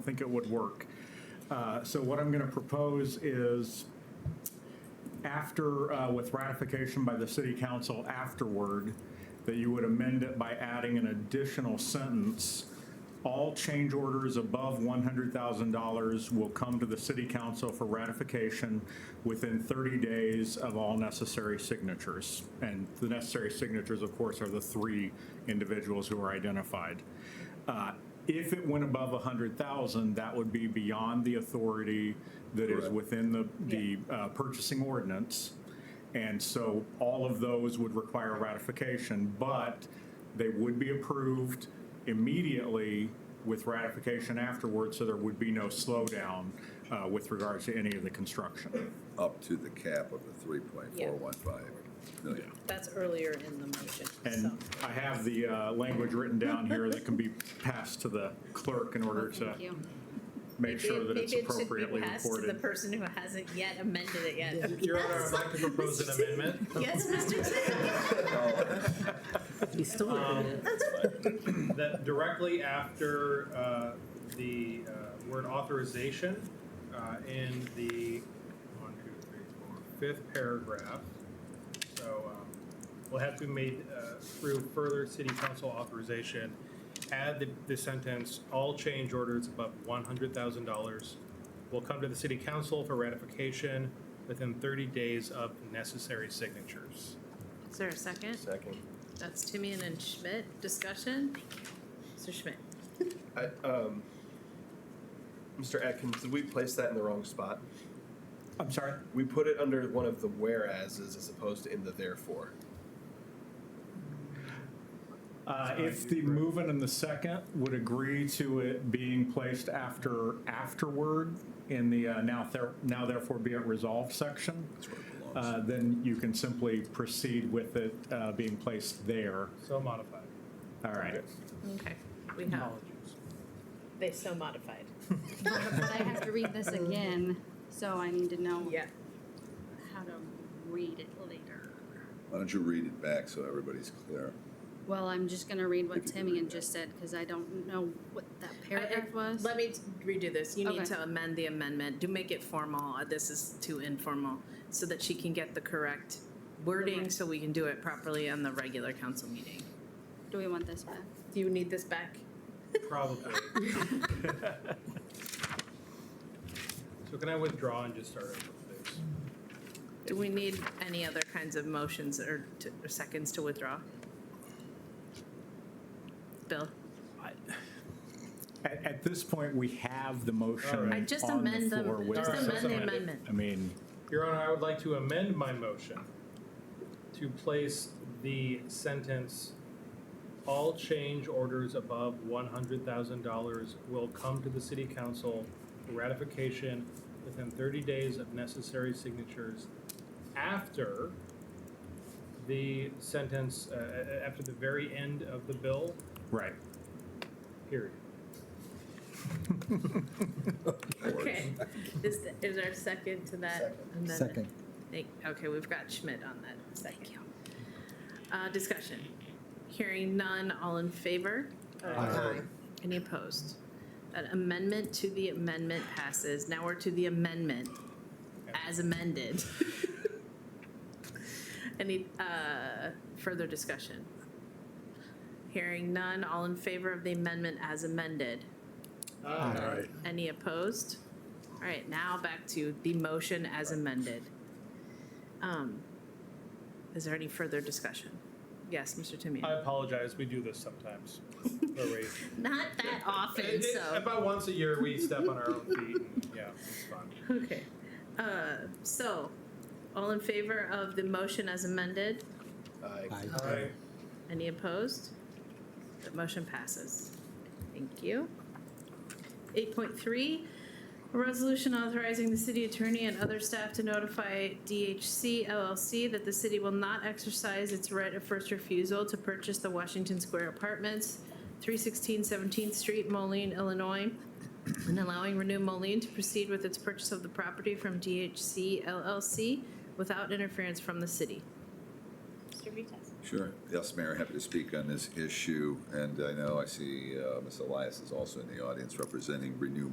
think it would work. Uh, So what I'm going to propose is after, uh, with ratification by the city council afterward, that you would amend it by adding an additional sentence. All change orders above $100,000 will come to the city council for ratification within 30 days of all necessary signatures. And the necessary signatures, of course, are the three individuals who are identified. Uh, If it went above 100,000, that would be beyond the authority that is Correct. within the, the uh, purchasing ordinance. And so all of those would require ratification, but they would be approved immediately with ratification afterwards, so there would be no slowdown uh, with regards to any of the construction. up to the cap of the three point four one five million. That's earlier in the motion, so. And I have the uh, language written down here that can be passed to the clerk in order to Thank you. make sure Maybe- that it's maybe it should be appropriately passed to The recorded. person who hasn't yet amended it yet. Your Honor, I'd like to propose an amendment. Yes, Mr. Tippett? That directly after uh, the uh, word authorization uh, in the one, two, three, four, fifth paragraph, so um, will have to be made uh, through further city council authorization, add the- the sentence, all change orders above $100,000 will come to the city council for ratification within 30 days of necessary signatures. Is there a second? Second. That's Timian and Schmidt. Discussion? Mr. Schmidt? I, um, Mr. Atkins, did we place that in the wrong spot? I'm sorry? We put it under one of the whereases as opposed to in the therefore. Uh, If the movement and the second would agree to it being placed after, afterward in the uh, now ther- now therefore be it resolved section, uh, then you can simply proceed with it uh, being placed there. So modified. All right. Okay, we have. Apologies. They so modified. But I have to read this again, so I need to know Mm. Yeah. how to read it later. Why don't you read it back so everybody's clear? Well, I'm just gonna read what If you can read Timian that. just said, because I don't know what that I- I- paragraph was. Let me redo this. You need Okay. to amend the amendment. Do make it formal. Uh, This is too informal, so that she can get the correct wording, so we can do it properly on the regular council meeting. Do we want this back? Do you need this back? Probably. So can I withdraw and just start over, please? Do we need any other kinds of motions or t- or seconds to withdraw? Bill, At, at this point, we have the motion All right. I on just the amend floor. them, with- just Alright, amend the amend it. amendment. I mean, Your Honor, I would like to amend my motion to place the sentence, "All change orders above $100,000 will come to the city council for ratification within 30 days of necessary signatures after the sentence, uh, uh, after the very end of the bill, right. period." Okay, is, th- is there a second to that amendment? Second. Thank- Okay, we've got Schmidt on that second. Uh, discussion, hearing none, all in favor? Aye. Any opposed? An amendment to the amendment passes, now we're to the amendment as amended. Any, uh, further discussion? Hearing none, all in favor of the amendment as amended? Any opposed? All right, now back to the motion as amended. Um, Is there any further discussion? Yes, Mr. I Timian? apologize, we do this sometimes. We're raised. Not that often, It- it- so, About once a year, we step on our own feet, and, yeah, it's fun. okay. Uh, So, all in favor of the motion as amended? I Aye. Any opposed? The motion passes. Thank you. Eight point three, a resolution authorizing the city attorney and other staff to notify DHC LLC that the city will not exercise its right of first refusal to purchase the Washington Square Apartments, 316 17th Street, Moline, Illinois, and allowing Renew Moline to proceed with its purchase of the property from DHC LLC without interference from the city. Mr. Vitez. Sure. Yes, Mayor, happy to speak on this issue, and I know I see uh, Ms. Elias is also in the audience representing Renew